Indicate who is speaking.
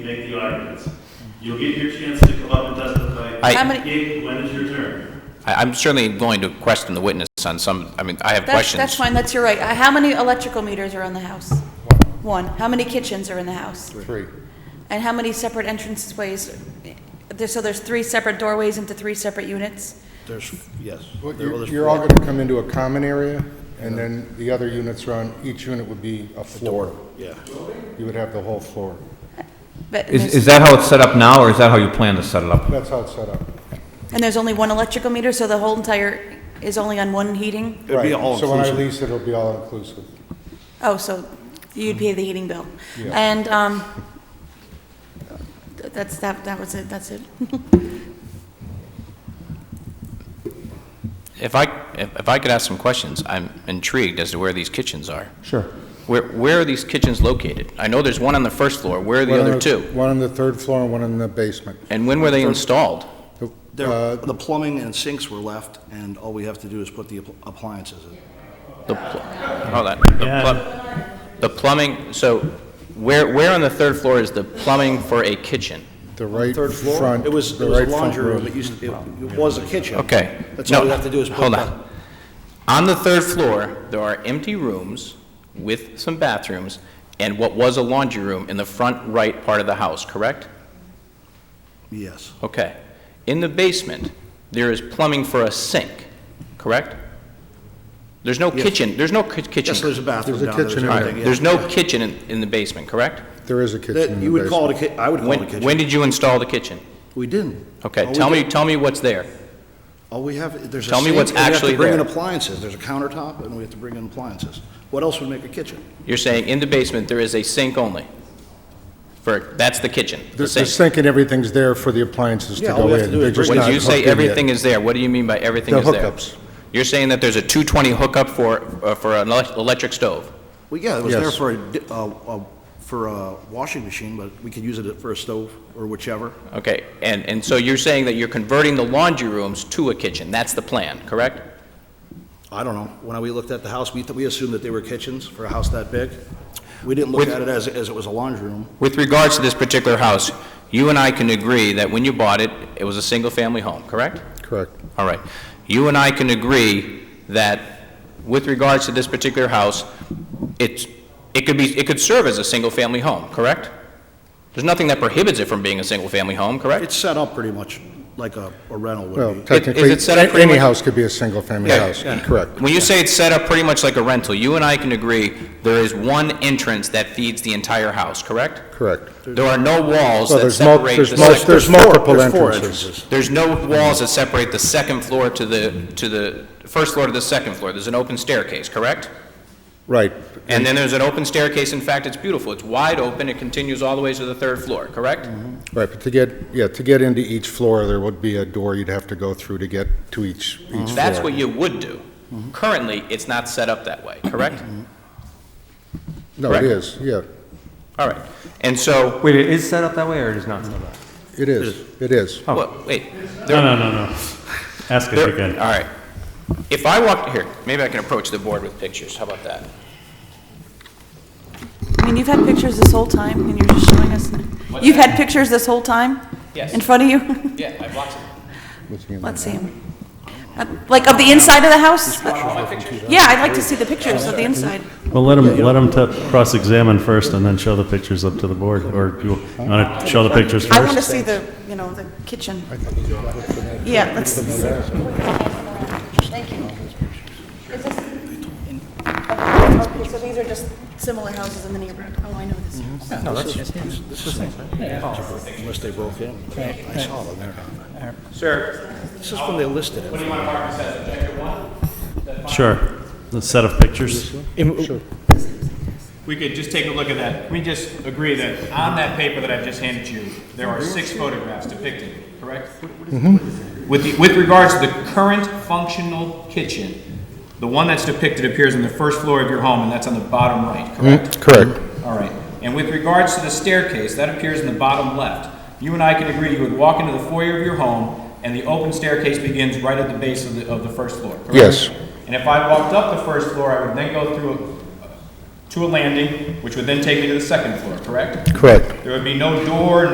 Speaker 1: make the arguments. You'll get your chance to come up and testify.
Speaker 2: I-
Speaker 3: How many-
Speaker 1: Kate, When is your turn?
Speaker 2: I- I'm certainly willing to question the witness on some, I mean, I have
Speaker 3: That's,
Speaker 2: questions.
Speaker 3: that's fine, that's your right. Uh, How many electrical meters are in the house? One. How many kitchens are in the house?
Speaker 4: Three.
Speaker 3: And how many separate entrance ways? There- So there's three separate doorways into three separate units?
Speaker 5: There's, yes.
Speaker 4: Well,
Speaker 5: there-
Speaker 4: You're
Speaker 5: well, there's
Speaker 4: you're all
Speaker 5: four.
Speaker 4: going to come into a common area, and then the other units are on, each unit would be a floor.
Speaker 5: Yeah.
Speaker 4: You would have the whole floor.
Speaker 3: But- and
Speaker 6: Is,
Speaker 3: there's-
Speaker 6: is that how it's set up now, or is that how you plan to set it up?
Speaker 4: That's how it's set up.
Speaker 3: And there's only one electrical meter, so the whole entire is only on one heating?
Speaker 5: It'd be
Speaker 4: Right.
Speaker 5: all
Speaker 4: So when I
Speaker 5: inclusive.
Speaker 4: lease it, it'll be all inclusive.
Speaker 3: Oh, so you'd pay the heating bill?
Speaker 4: Yeah.
Speaker 3: And, um, th- that's, that, that was it, that's it.
Speaker 2: If I, if if I could ask some questions, I'm intrigued as to where these kitchens are.
Speaker 4: Sure.
Speaker 2: Where, where are these kitchens located? I know there's one on the first floor, where are the other two?
Speaker 4: One on the third floor and one in the basement.
Speaker 2: And when were they installed?
Speaker 4: Uh,
Speaker 5: There- The plumbing and sinks were left, and all we have to do is put the app- appliances in.
Speaker 2: The, pl- hold on, the pl- the plumbing, so where, where on the third floor is the plumbing for a kitchen?
Speaker 4: The right
Speaker 5: Third floor,
Speaker 4: front,
Speaker 5: it
Speaker 4: the
Speaker 5: was, it was a
Speaker 4: right front
Speaker 5: laundry room,
Speaker 4: room.
Speaker 5: it used, to- it it was a kitchen.
Speaker 2: Okay.
Speaker 5: That's
Speaker 2: No,
Speaker 5: all we have to do is put
Speaker 2: Hold
Speaker 5: the-
Speaker 2: on. On the third floor, there are empty rooms with some bathrooms and what was a laundry room in the front right part of the house, correct?
Speaker 5: Yes,
Speaker 2: Okay. In the basement, there is plumbing for a sink, correct? There's no
Speaker 5: Yes.
Speaker 2: kitchen, there's no ki- kitchen.
Speaker 5: yes, there's a bathroom
Speaker 4: There's a
Speaker 5: down there,
Speaker 4: kitchen
Speaker 5: there's
Speaker 4: in
Speaker 2: All
Speaker 4: there.
Speaker 2: right,
Speaker 5: everything, yeah.
Speaker 2: There's no kitchen in, in the basement, correct?
Speaker 4: There is a kitchen in the
Speaker 5: That,
Speaker 4: basement.
Speaker 5: you would call it a ki, I would call it a
Speaker 2: When,
Speaker 5: kitchen.
Speaker 2: when did you install the kitchen?
Speaker 5: We didn't. All
Speaker 2: Okay,
Speaker 5: we
Speaker 2: tell me,
Speaker 5: did-
Speaker 2: tell me what's there.
Speaker 5: All we have, there's a
Speaker 2: tell me
Speaker 5: sink,
Speaker 2: what's
Speaker 5: and we have to
Speaker 2: actually
Speaker 5: bring in
Speaker 2: there.
Speaker 5: appliances, there's a countertop, and we have to bring in appliances. What else would make a kitchen?
Speaker 2: You're saying in the basement, there is a sink only? For, that's the kitchen,
Speaker 4: The
Speaker 2: the
Speaker 4: the
Speaker 2: sink.
Speaker 4: sink and everything's there for the appliances to
Speaker 5: Yeah, all we
Speaker 4: go
Speaker 5: have to
Speaker 4: in.
Speaker 5: do is
Speaker 4: They're just
Speaker 5: bring-
Speaker 4: not
Speaker 2: When you say
Speaker 4: hooked in yet.
Speaker 2: everything is there, what do you mean by everything
Speaker 4: The
Speaker 2: is there?
Speaker 4: hookups.
Speaker 2: You're saying that there's a 220 hookup for, uh, for an elec- electric stove?
Speaker 5: Well, yeah, it was
Speaker 4: Yes.
Speaker 5: there for a, di- uh, uh, for a washing machine, but we could use it for a stove or whichever.
Speaker 2: Okay, and, and so you're saying that you're converting the laundry rooms to a kitchen, that's the plan, correct?
Speaker 5: I don't know. When we looked at the house, we, th- we assumed that they were kitchens for a house that big. We didn't look
Speaker 2: With-
Speaker 5: at it as, as it was a laundry room.
Speaker 2: With regards to this particular house, you and I can agree that when you bought it, it was a single-family home, correct?
Speaker 4: Correct.
Speaker 2: All right. You and I can agree that with regards to this particular house, it's, it could be, it could serve as a single-family home, correct? There's nothing that prohibits it from being a single-family home, correct?
Speaker 5: It's set up pretty much like a, a rental would
Speaker 4: Well,
Speaker 5: be.
Speaker 4: technically,
Speaker 2: set up
Speaker 4: a-
Speaker 2: pretty
Speaker 4: any
Speaker 2: much-
Speaker 4: house could be a single-family
Speaker 2: Yeah,
Speaker 4: house. Correct.
Speaker 2: When you say it's set up pretty much like a rental, you and I can agree there is one entrance that feeds the entire house, correct?
Speaker 4: Correct.
Speaker 2: There are no walls
Speaker 4: Well,
Speaker 2: that
Speaker 4: there's mul-
Speaker 2: separate the
Speaker 4: there's
Speaker 2: second...
Speaker 4: mul- there's multiple
Speaker 5: There's four
Speaker 4: entrances.
Speaker 2: There's no walls that separate the second floor to the, to the, first floor to the second floor. There's an open staircase, correct?
Speaker 4: Right.
Speaker 2: And then there's an open staircase, in fact, it's beautiful, it's wide open, it continues all the way to the third floor, correct?
Speaker 4: Right, but to get, yeah, to get into each floor, there would be a door you'd have to go through to get to each, each floor.
Speaker 2: That's what you would do. Currently, it's not set up that way, correct?
Speaker 4: No, it
Speaker 2: correct.
Speaker 4: is, yeah,
Speaker 2: All right, and so,
Speaker 6: Wait, it is set up that way, or it is not set up?
Speaker 4: it is, it is.
Speaker 6: Oh.
Speaker 2: wha- wait,
Speaker 1: No, no, no, no. Ask it
Speaker 2: There-
Speaker 1: again.
Speaker 2: All right. If I walked, here, maybe I can approach the board with pictures, how about that?
Speaker 3: I mean, you've had pictures this whole time, and you're just showing us, you've had pictures this whole time?
Speaker 2: Yes.
Speaker 3: In front of you?
Speaker 2: Yeah, I've watched it.
Speaker 4: Looking at
Speaker 3: Let's see 'em. Uh, Like of the inside of the house? Uh, Yeah, I'd like to see the pictures of the inside.
Speaker 1: Well, let him, let him t- cross-examine first and then show the pictures up to the board, or you want to show the pictures
Speaker 3: I want to
Speaker 1: first?
Speaker 3: see the, you know, the kitchen. Yeah, let's,
Speaker 7: Thank you. Is this-
Speaker 3: okay, so these are just similar houses in the neighborhood. Oh, I know this house.
Speaker 5: Unless they broke in. I saw them there.
Speaker 2: Sir,
Speaker 5: This is when they listed it.
Speaker 2: do you want to mark this as objective one?
Speaker 1: Sure. The set of pictures.
Speaker 8: we could just take a look at that. Can we just agree that on that paper that I've just handed you, there are six photographs depicting it, correct? With, the- with regards to the current functional kitchen, the one that's depicted appears on the first floor of your home, and that's on the bottom right, correct?
Speaker 4: Mm, Correct.
Speaker 8: All right. And with regards to the staircase, that appears in the bottom left. You and I can agree you would walk into the foyer of your home, and the open staircase begins right at the base of the, of the first floor, correct?
Speaker 4: Yes.
Speaker 8: And if I walked up the first floor, I would then go through, a- to a landing, which would then take me to the second floor, correct?
Speaker 4: Correct.
Speaker 8: There would be no door,